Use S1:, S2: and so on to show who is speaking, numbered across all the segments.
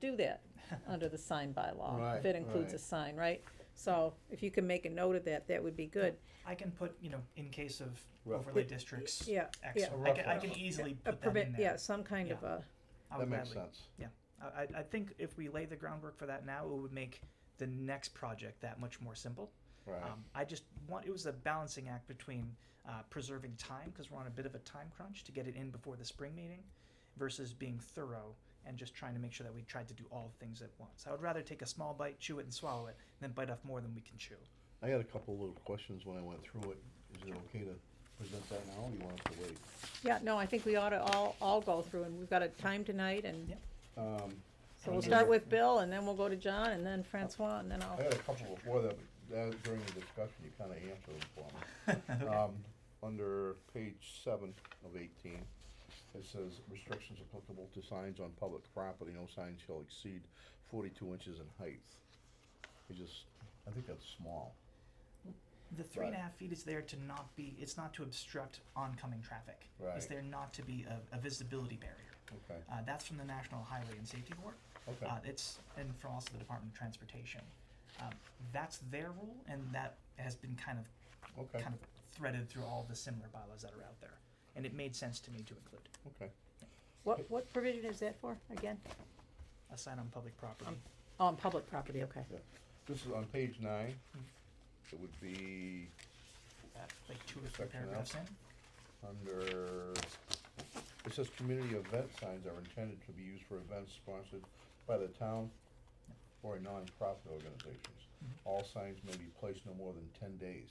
S1: do that under the sign bylaw. If
S2: Right,
S1: it includes a
S2: right.
S1: sign, right? So if you can make a note of that, that would be good.
S3: I can put, you know, in case of
S2: Rough.
S3: overlay districts,
S1: Yeah,
S3: X,
S1: yeah.
S2: A
S3: I
S2: rough
S3: can, I can
S2: one.
S3: easily
S1: a
S3: put that
S1: permit,
S3: in there.
S1: yeah, some kind of a,
S2: That
S3: I would
S2: makes
S3: gladly-
S2: sense.
S3: I, I- I think if we lay the groundwork for that now, it would make the next project that much more simple.
S2: Right.
S3: Um, I just want, it was a balancing act between uh, preserving time, because we're on a bit of a time crunch to get it in before the spring meeting, versus being thorough and just trying to make sure that we tried to do all things at once. I would rather take a small bite, chew it and swallow it, than bite off more than we can chew.
S2: I had a couple little questions when I went through it. Is it okay to present that now or you want us to wait?
S1: yeah, no, I think we ought to all, all go through and we've got a time tonight and
S3: Yep.
S2: Um,
S1: so we'll
S2: Okay.
S1: start with Bill and then we'll go to John and then Francois and then
S2: I
S1: I'll,
S2: had a couple before that, but that during the discussion, you kinda answered them for me. Um, Under page seven of eighteen, it says restrictions applicable to signs on public property, no sign shall exceed forty-two inches in height. It just, I think that's small.
S3: The three and a
S2: Right.
S3: half feet is there to not be, it's not to obstruct oncoming traffic.
S2: Right.
S3: It's there not to be a, a visibility barrier.
S2: Okay,
S3: Uh, that's from the National Highway and Safety Board.
S2: okay,
S3: Uh, it's, and from also the Department of Transportation. Um, that's their rule and that has been kind of,
S2: okay,
S3: kind of threaded through all the similar bylaws that are out there. And it made sense to me to include
S2: okay.
S1: what, what provision is that for again?
S3: a sign on public property.
S1: Oh, on public property, okay.
S2: Yeah. This is on page nine. It would be
S3: Uh, Like two or three
S2: Section F.
S3: paragraphs in.
S2: under, it says community event signs are intended to be used for events sponsored by the town or nonprofit organizations.
S3: Mm-hmm.
S2: All signs may be placed no more than ten days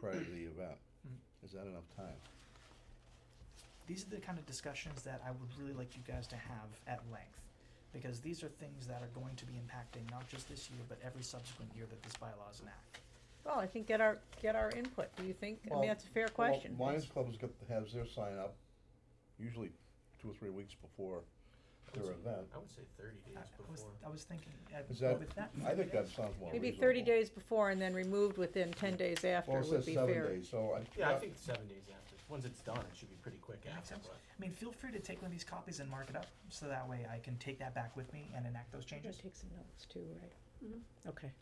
S2: prior to the event.
S3: Mhm.
S2: Is that enough time?
S3: these are the kind of discussions that I would really like you guys to have at length. Because these are things that are going to be impacting not just this year, but every subsequent year that this bylaw is enacted.
S1: Well, I think get our, get our input, do you think? I mean, that's a fair question.
S2: Well, Lions Club has got, has their sign up usually two or three weeks before their event.
S4: I would say thirty
S3: I-
S4: days
S3: I was,
S4: before.
S3: I was thinking, uh,
S2: Is that,
S3: with that.
S2: I think that sounds more reasonable.
S1: Maybe thirty days before and then removed within ten days after
S2: Well, it
S1: would
S2: says
S1: be
S2: seven
S1: fair.
S2: days, so I.
S4: Yeah, I think seven days after. Once it's done, it should be pretty quick
S3: Makes
S4: after,
S3: sense.
S4: but
S3: I mean, feel free to take one of these copies and mark it up, so that way I can take that back with me and enact those
S1: Gotta
S3: changes.
S1: take some notes too, right? Okay.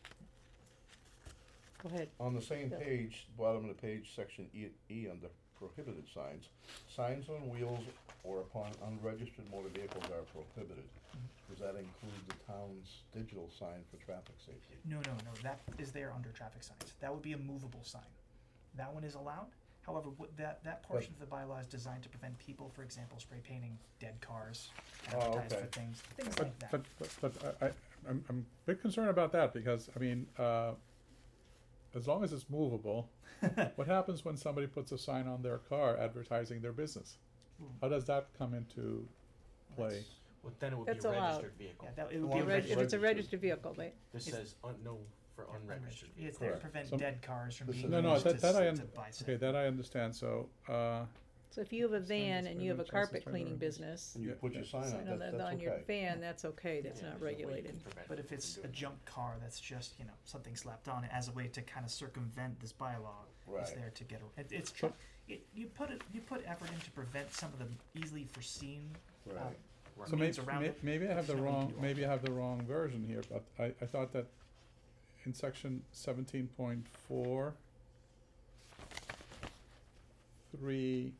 S1: Go ahead.
S2: On the same
S1: Yeah.
S2: page, bottom of the page, section E, E under prohibited signs, signs on wheels or upon unregistered motor vehicles are prohibited. Does that include the town's digital sign for traffic safety?
S3: No, no, no, that is there under traffic signs. That would be a movable sign. That one is allowed. However, what, that, that portion of the bylaw is designed to prevent people, for example, spray painting dead cars,
S2: Oh,
S3: advertise for
S2: okay.
S3: things, things
S5: But,
S3: like that.
S5: but, but, but I, I, I'm, I'm a bit concerned about that because, I mean, uh, as long as it's movable, what happens when somebody puts a sign on their car advertising their business?
S3: Mm.
S5: How does that come into play?
S3: That's-
S4: well, then it would be
S1: That's
S4: a
S1: allowed.
S4: registered vehicle.
S3: Yeah, that, it would
S2: Well,
S3: be a
S2: I'm
S1: Reg- If
S3: registered.
S1: it's a registered vehicle, they,
S4: This
S3: It's-
S4: says un- no for unregistered
S3: It's
S4: vehicles.
S3: there to
S2: Correct.
S3: prevent
S5: Some-
S3: dead cars from
S2: This
S3: being
S2: is-
S3: used
S5: No, no,
S3: to,
S5: that- that I
S3: s-
S5: un-
S3: to buy stuff.
S5: Okay, that I understand, so, uh,
S1: so if you have a
S5: Sign
S1: van
S5: is
S1: and you have a
S5: prohibited, signs is
S1: carpet cleaning
S5: prohibited.
S1: business,
S2: And you
S5: Yeah,
S2: put your
S5: yeah.
S2: sign
S1: sign
S2: on,
S1: on
S2: that-
S1: the, on
S2: that's
S1: your
S2: okay.
S1: van, that's okay, that's
S4: Yeah,
S1: not
S4: there's no way you can
S1: regulated.
S4: prevent
S3: But
S4: them
S3: if
S4: from
S3: it's a
S4: doing it.
S3: junk car that's just, you know, something slapped on it as a way to kind of circumvent this bylaw, it's
S2: Right.
S3: there to get, a- it, it's, tr-
S5: So-
S3: it, you put it, you put effort in to prevent some of the easily foreseen, uh,
S2: Right.
S4: Right.
S5: so may-
S3: means around
S5: may-
S3: it,
S5: maybe I
S3: but
S5: have the
S3: showing
S5: wrong,
S3: people.
S5: maybe I have the wrong version here, but I, I thought that in section seventeen point four three,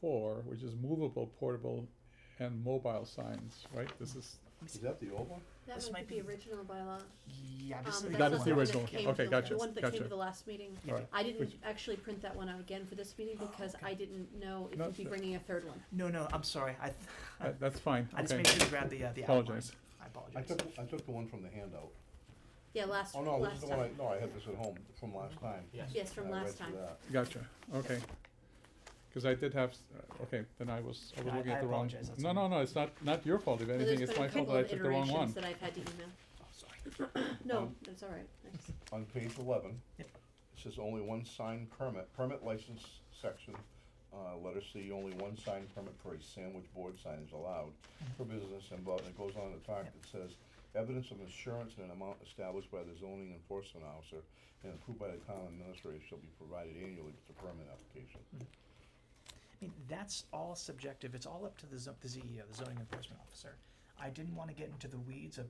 S5: four, which is movable, portable, and mobile signs, right? This is,
S2: Is that the old one?
S6: That
S3: This
S6: might
S3: might
S6: be
S3: be-
S6: the original bylaw.
S3: Yeah, this is
S6: Um, that's
S3: the
S5: That is
S6: not
S5: the
S3: one.
S6: one
S5: original.
S6: that came
S5: Okay,
S6: to
S5: gotcha,
S6: The one that came
S5: gotcha.
S6: to the last meeting.
S3: Yeah.
S5: Alright.
S6: I didn't
S5: Which-
S6: actually print that one out again for this meeting because I didn't know if
S5: No,
S6: you'd be
S5: that's-
S6: bringing a third one.
S3: No, no, I'm sorry, I, th-
S5: that- that's fine,
S3: I just
S5: okay.
S3: made sure to grab the, uh, the outline.
S5: Apologize.
S3: I
S2: I
S3: apologize.
S2: took, I took the one from the handout.
S6: Yeah, last,
S2: Oh, no, this is
S6: last
S2: the one I,
S6: time.
S2: no, I had this at home from last time.
S4: Yes.
S6: Yes, from
S2: I read
S6: last
S2: through
S6: time.
S2: that.
S5: Gotcha, okay. Cause I did have, s- uh, okay, then I was, I was
S3: I-
S5: looking
S3: I
S5: at the wrong.
S3: apologize, that's
S5: No,
S3: on me.
S5: no, no, it's not, not your fault, if
S6: So
S5: anything, it's my fault that I took the wrong one.
S6: There's been a couple of iterations that I've had to
S3: Oh,
S6: email.
S3: sorry.
S6: No,
S2: Um,
S6: that's all right. Thanks.
S2: on page eleven, it
S3: Yep.
S2: says only one sign permit, permit license section, uh, letter C, only one sign permit for a sandwich board sign is allowed for business involved, and it goes on to talk,
S3: Mm-hmm. Yep.
S2: it says, evidence of insurance in an amount established by the zoning enforcement officer and approved by the town administrator shall be provided annually with the permit application.
S3: I mean, that's E all subjective. It's all up to the, zo- the ZEO, the zoning enforcement officer. I didn't want to get into the weeds of